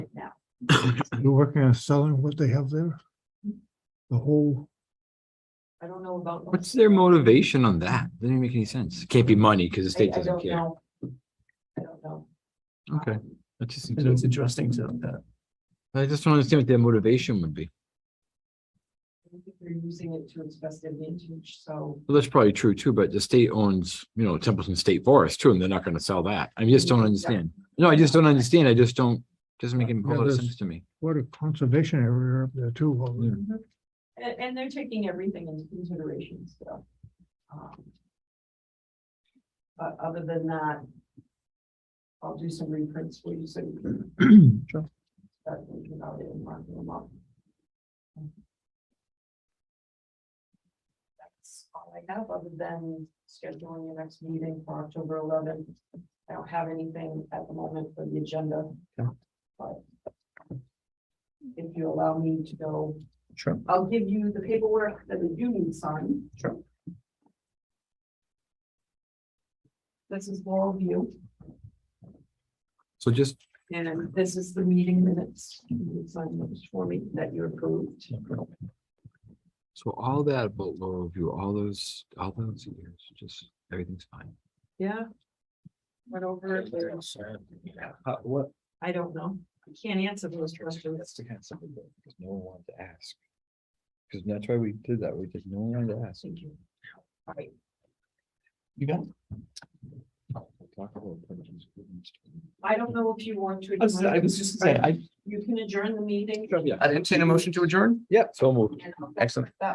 You're working on selling what they have there? The whole, I don't know about. What's their motivation on that? Doesn't even make any sense. It Can't be money because I- the I state doesn't don't care. know. I don't know. Okay. That's just, And it's interesting to that. I just don't understand what their motivation would be. I don't think They're using it to its best advantage, so. Well, that's probably true too, but the state owns, you know, Templeton State Forest too, and they're not gonna sell that. I just don't Yeah. understand. No, I just don't understand. I just don't, doesn't make any Yeah, political there's- sense to me. what a conservation area up there too. over there. Mm-hmm. And, and they're taking everything into consideration, so. um, But other than that, I'll do some reprints for you, so you can Sure. start thinking about it and marking them up. That's all I have, other than scheduling your next meeting for October eleventh. I don't have anything at the moment for the agenda. Okay. But if you allow me to go Sure. I'll give you the paperwork that the union signed. Sure. This is Laurel View, So just, and this is the meeting minutes. You can sign those for me that you approved. so all that about Laurel View, all those, all those years, just everything's fine. Yeah. Went over it, but Uh, what? I don't know. I can't answer those questions. the kind of something that no one wanted to ask. Cause that's why we did that. We just, no one wanted to ask. Thank you. All right, You got? I don't know if you want to. I was, I was just saying, I, You can adjourn the meeting. I didn't say a motion to adjourn? Yeah, so moved. and I'll- Excellent.